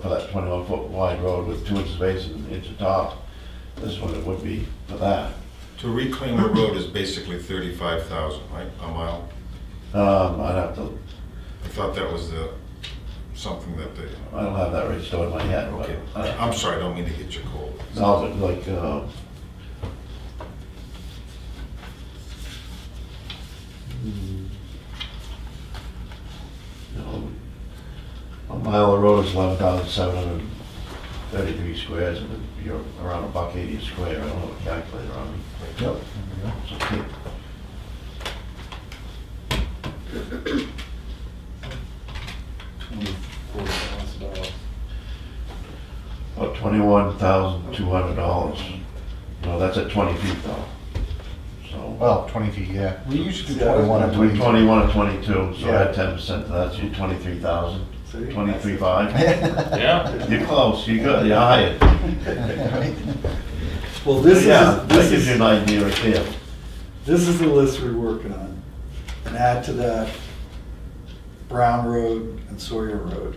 for that twenty-one foot wide road with two inches base and an inch of top. This one it would be for that. To reclaim a road is basically thirty-five thousand, right, a mile? Um, I'd have to, I thought that was the, something that they, I don't have that right stored in my head, but. okay. uh, I'm sorry, I don't mean to hit your cold. No, but like, uh, you know, a mile of road is eleven thousand seven hundred thirty-three squares, and you're around a buck eighty a square, I don't have a calculator on me. Yep. So, okay. Twenty-four thousand dollars. About Oh, twenty-one thousand two hundred dollars, you know, that's at twenty feet though, so. Well, twenty feet, yeah. We used to do Yeah, twenty-one and that's We twenty-two. twenty-one to twenty-two, so Yeah. add ten percent to that, so you're twenty-three thousand, twenty-three five. Yeah, You're close, you got, you're higher. Well, this is, Yeah, that this gives you an is, idea right there. this is the list we're working on. And add to that Brown Road and Sawyer Road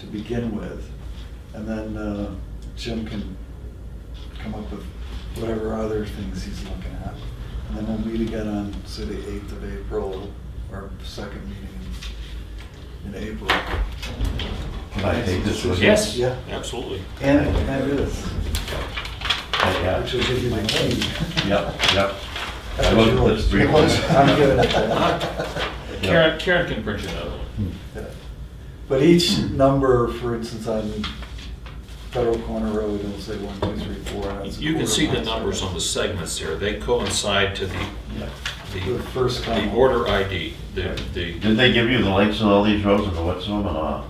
to begin with. And then uh, Jim can come up with whatever other things he's looking at. And then we'll meet again on, say, the eighth of April, our second meeting in in April. Can I take this with me? yes, Yeah. absolutely. And, and it is. Yeah, Which will give you the key. yep, yep. I looked at this It briefly. was- I'm giving it that. Karen, Karen can print you another one. But each number, for instance, on Federal Corner Road, it'll say one point three four. You can see the numbers on the segments there, they coincide to the, Yeah. the, The first the column. order ID, the, the, Did they give you the lengths of all these roads uh, and what's on them or not?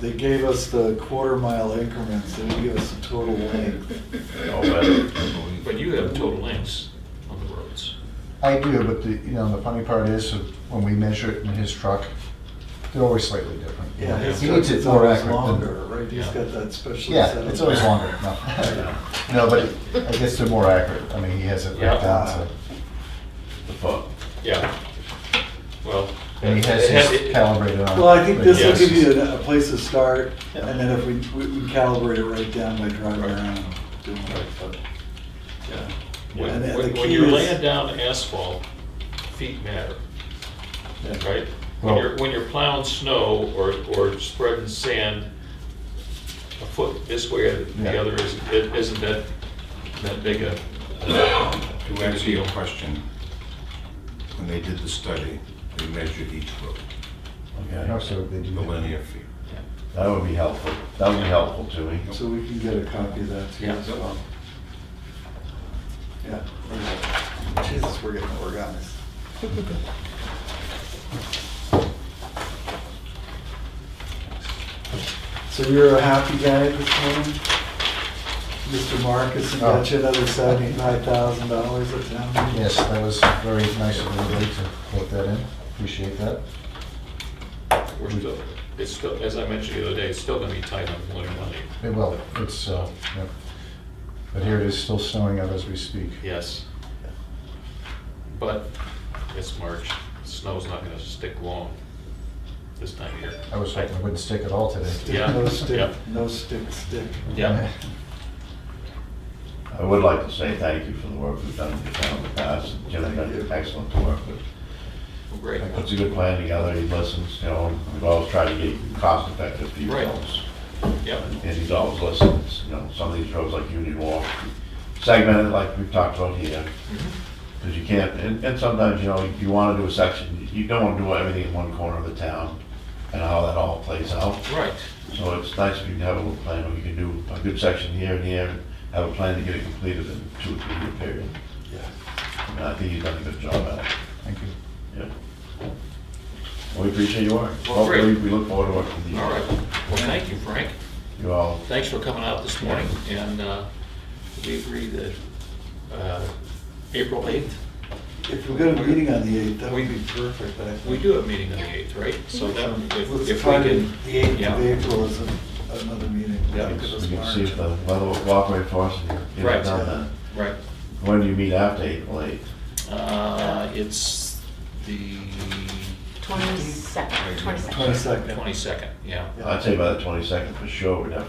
They gave us the quarter mile increments, they didn't give us the total length. Oh, well, but you have total lengths on the roads. I do, but the, you know, the funny part is, that when we measure it in his truck, they're always slightly different. Yeah, his He needs truck's it more always accurate than- Longer, right, he's Yeah. got that special. Yeah, setup. it's always longer, no. No, but I guess they're more accurate, I mean, he has it right Yeah. down, so, The fuck? Yeah. Well. and he has it had- his it- calibrated on. Well, I think this will Yes. give you a a place to start, Yeah. and then if we, we we calibrate it right down by driving Right. around, doing it, but. yeah. And the- When, when- the when key you're is- laying down asphalt, feet matter, right? When Well- you're, when you're plowing snow or, or spreading sand, a foot this way or the Yeah. other isn't, it isn't that, that big a, To answer your question, when they did the study, they measured each road, Okay, Also, they do. the linear feet. that would be helpful. That would be helpful to me. So we can get a copy of that to you Yeah. as well. Yeah. we're good. Jesus, we're getting organized. So you're a happy guy this morning? Mr. Marcus and got you another seventy-five thousand dollars at town meeting? Yes, that was very nice of everybody to put that in, appreciate that. we're still, it's still, as I mentioned the other day, it's still gonna be tight on winter money. It will, it's, uh, yeah. But here it is still snowing out as we speak. Yes. But it's March, snow's not gonna stick long this time of year. I was hoping it wouldn't stick at all today. Stick, Yeah, No yeah. stick, no stick, stick. Yeah, I would like to say thank you for the work we've done in the town in the past. Jim's Thank done you. excellent work, but great. he puts a good plan together, he listens, you know, we've always tried to get cost effective for you Right. folks. Yep, and he's always listening, you know, some of these roads like Union Walk, segmented like we've talked about here. Mm-hmm. Because you can't, and, and sometimes, you know, you wanna do a section, you don't wanna do everything in one corner of the town and how that all plays out. right, So it's nice if you can have a little plan, where you can do a good section here and here, and have a plan to get it completed in two or three year period. Yeah. And I think you've done a good job at it, Thank you. yeah. We appreciate your work. Well, great. Hopefully, we look forward to working with you. all right. Well, thank you, Frank. You all, Thanks for coming out this morning, and uh, we agree that uh, April 8th, If we got a meeting on the eighth, that would be perfect, I think. we do have a meeting on the 8th, right? So that, if if Let's we try to- can, The eighth of yeah, April is a- another meeting. Yeah, we Because it's can see March. if the weather will cooperate for us and get Right. it done then. right. When do you meet after April eighth? Uh, It's the Twenty-second, twenty-second. Twenty-second. 22nd, yeah. Yeah. I'd say by the twenty-second for sure, we'd have